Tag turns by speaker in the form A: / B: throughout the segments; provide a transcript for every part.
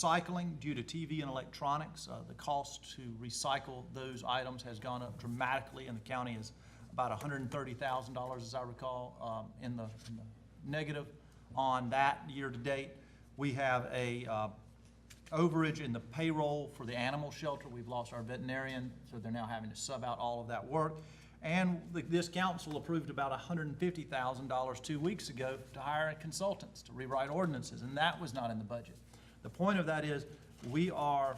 A: recycling due to TV and electronics. Uh, The cost to recycle those items has gone up dramatically, and the county is about $130,000, as I recall, um, in the in the negative on that year-to-date. We have a uh, overage in the payroll for the animal shelter. We've lost our veterinarian, so they're now having to sub out all of that work. And the- this council approved about $150,000 two weeks ago to hire consultants to rewrite ordinances, and that was not in the budget. The point of that is, we are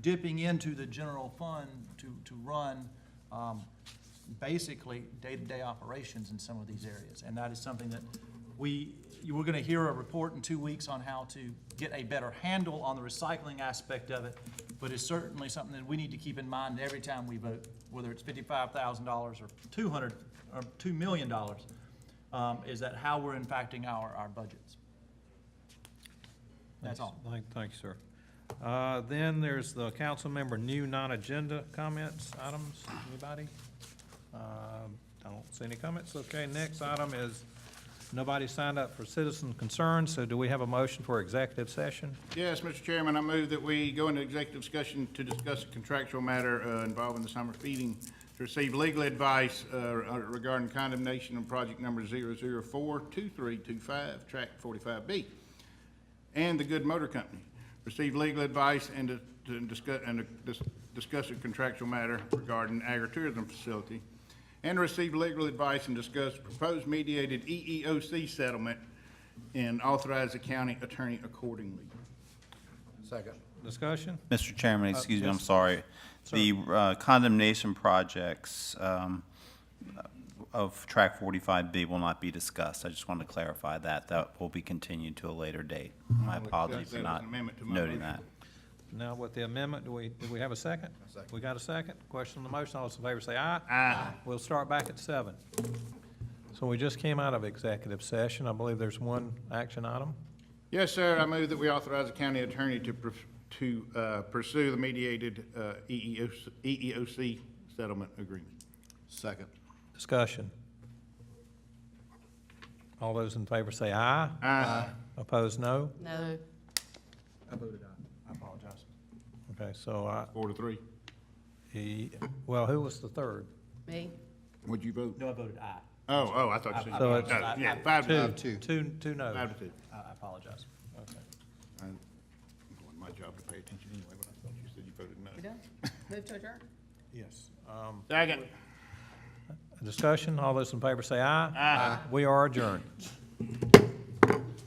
A: dipping into the general fund to, to run um, basically day-to-day operations in some of these areas. And that is something that we, you are gonna hear a report in two weeks on how to get a better handle on the recycling aspect of it, but it's certainly something that we need to keep in mind every time we vote, whether it's fifty-five thousand dollars or two hundred, or two million dollars, um, is that how we're impacting our, our budgets. That's all.
B: Thank, thank you, sir. Uh, Then there's the council member new non-agenda comments, items, anybody? Um, I don't see any comments. Okay, next item is, nobody signed up for citizen concerns, so do we have a motion for executive session?
C: Yes, Mr. Chairman, I move that we go into executive discussion to discuss a contractual matter uh, involving the summer feeding to receive legal advice uh, regarding condemnation of project number 0042325, track 45B, and the Good Motor Company. Receive legal advice and to- to discuss, and to dis- discuss a contractual matter regarding agritourism facility, and receive legal advice and discuss proposed mediated E EEOC settlement, and authorize the county attorney accordingly.
B: Discussion?
D: Mr. Chairman,
C: Uh,
D: excuse me, I'm
B: yes.
D: sorry. The uh, condemnation projects um, of Track 45B will not be discussed. I just wanted to clarify that. That will be continued to a later date.
C: Mm-hmm.
D: My apologies
C: that
D: for
C: as
D: not
C: an amendment to my
D: noting that.
C: motion.
B: Now with the amendment, do we, do we have a second? We got a second? Question on the motion, all those in favor say aye.
C: Aye.
B: We'll start back at seven. So we just came out of executive session. I believe there's one action item.
C: Yes, sir, I move that we authorize the county attorney to, pr- to uh, pursue the mediated uh, EEOC EEOC E settlement agreement. Second.
B: Discussion. All those in favor say aye.
C: Aye.
B: Opposed, no.
E: No.
A: I voted aye. I apologize.
B: Okay, so I,
C: Four to three.
B: he, well, who was the third?
E: Me?
C: Would you vote?
A: No, I voted aye.
C: Oh, oh, I thought you said.
B: So it's-
C: Oh, Yeah, five to,
B: Two, two, two no.
C: five to two.
A: I I apologize.
B: Okay.
C: I- It wasn't my job to pay attention anyway, but I thought you said you voted no.
E: We done? Move to adjourn?
B: Yes.
C: Second.
B: Discussion, all those in favor say aye. Aye. We are adjourned.